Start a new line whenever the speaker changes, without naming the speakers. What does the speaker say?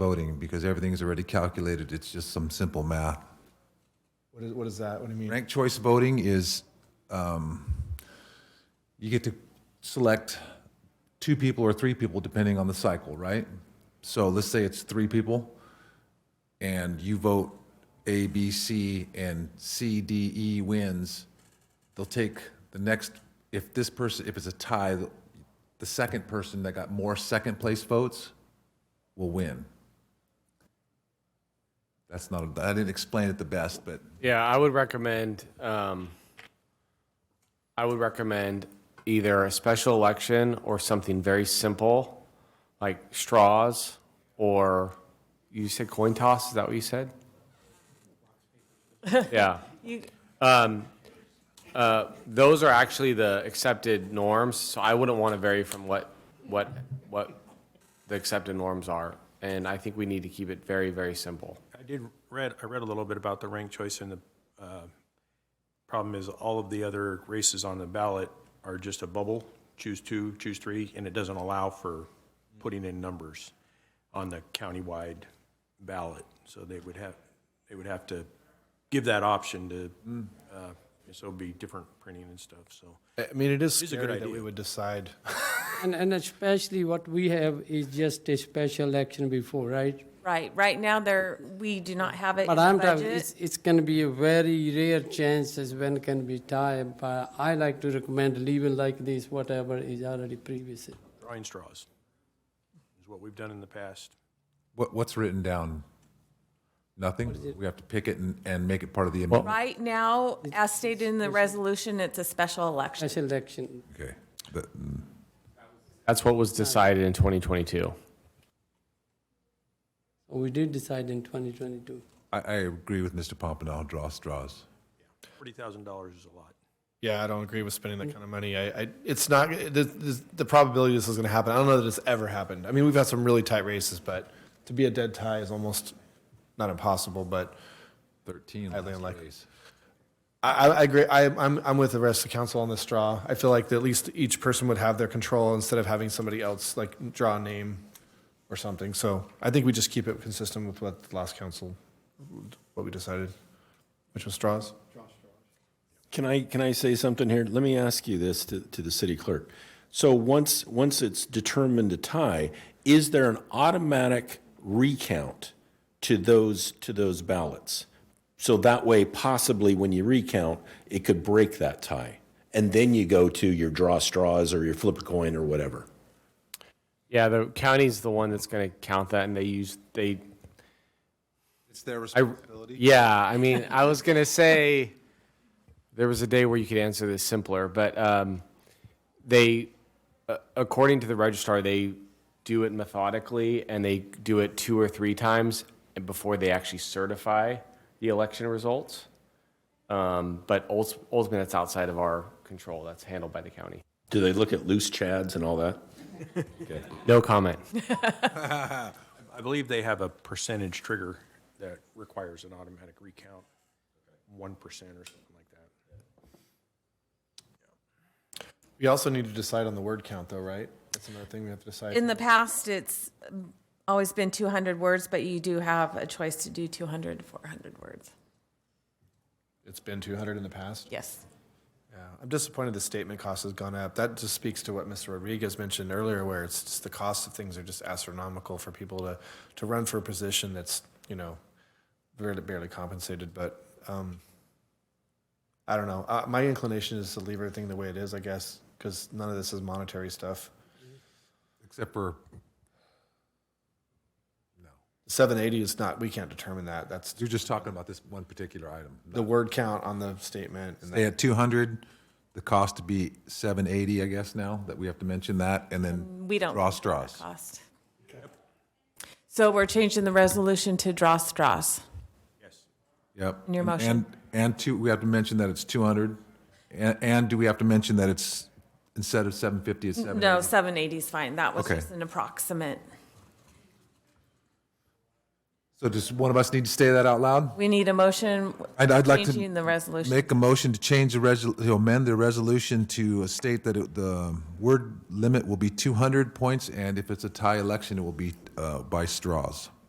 voting because everything's already calculated. It's just some simple math.
What is, what is that? What do you mean?
Ranked choice voting is um, you get to select two people or three people depending on the cycle, right? So let's say it's three people and you vote A, B, C, and C, D, E wins. They'll take the next, if this person, if it's a tie, the second person that got more second place votes will win. That's not, I didn't explain it the best, but
Yeah, I would recommend, um, I would recommend either a special election or something very simple, like straws, or you said coin toss, is that what you said? Yeah.
You,
Um, uh, those are actually the accepted norms, so I wouldn't want to vary from what, what, what the accepted norms are. And I think we need to keep it very, very simple.
I did read, I read a little bit about the ranked choice and the uh, problem is all of the other races on the ballot are just a bubble, choose two, choose three, and it doesn't allow for putting in numbers on the countywide ballot. So they would have, they would have to give that option to, uh, so it'd be different printing and stuff, so.
I mean, it is
It's a good
scary that we
idea.
would decide.
And, and especially what we have is just a special election before, right?
right, right now there, we do not have it in
But
the
I'm, talking- it's,
budget.
it's gonna be a very rare chances when can be time, but I like to recommend leaving like this, whatever is already previous.
Drawing straws is what we've done in the past.
What, what's written down? Nothing? We have to pick it and, and make it part of the amendment?
Right now, as stated in the resolution, it's a special election.
Special election,
Okay. But, mm,
That's what was decided in 2022.
we did decide in twenty twenty-two.
I, I agree with Mr. Pompano, draw straws.
Forty thousand dollars is a lot.
Yeah, I don't agree with spending that kind of money. I, I it's not the, the, the probability this is going to happen. I don't know that it's ever happened. I mean, we've had some really tight races, but to be a dead tie is almost not impossible. But
13
Highly
last
unlikely.
race.
I, I, I agree. I, I'm I'm with the rest of the council on this draw. I feel like that at least each person would have their control instead of having somebody else like draw a name or something. So I think we just keep it consistent with what the last council, what we decided, which was straws.
Can I, can I say something here? Let me ask you this to, to the city clerk. So once, once it's determined a tie, is there an automatic recount to those, to those ballots? So that way, possibly when you recount, it could break that tie. And then you go to your draw straws or your flip a coin or whatever.
Yeah, the county's the one that's going to count that, and they use they.
It's their
I,
responsibility.
yeah, I mean, I was going to say there was a day where you could answer this simpler, but um, they, uh, according to the registrar, they do it methodically and they do it two or three times before they actually certify the election results. Um, but ulti- ultimately, that's outside of our control. That's handled by the county.
Do they look at loose chads and all that?
No comment.
I believe they have a percentage trigger that requires an automatic recount, one percent or something like that.
We also need to decide on the word count, though, right? That's another thing we have to decide.
In the past, it's um, always been 200 words, but you do have a choice to do 200 to 400 words.
it's been 200 in the past.
Yes.
Yeah. I'm disappointed the statement cost has gone up. That just speaks to what Mr. Rodriguez mentioned earlier, where it's just the cost of things are just astronomical for people to, to run for a position that's, you know, barely, barely compensated. But um, I don't know. Uh, my inclination is to leave everything the way it is, I guess, because none of this is monetary stuff.
Except for,
780 is not, we can't determine that. That's
you're just talking about this one particular item.
the word count on the statement. And
They had 200, the cost to be 780, I guess now, that we have to mention that, and then
We don't.
draw
count that
straws.
Cost. So we're changing the resolution to draw straws.
Yep.
In your
And-
motion.
And, and two, we have to mention that it's 200, and, and do we have to mention that it's, instead of 750, it's 780?
No, 780 is fine. That was
Okay.
just an approximate.
So does one of us need to say that out loud?
We need a motion
I'd, I'd like
changing
to
the resolution.
make a motion to change the resol, to amend the resolution to state that it- the word limit will be 200 points, and if it's a tie election, it will be uh, by straws.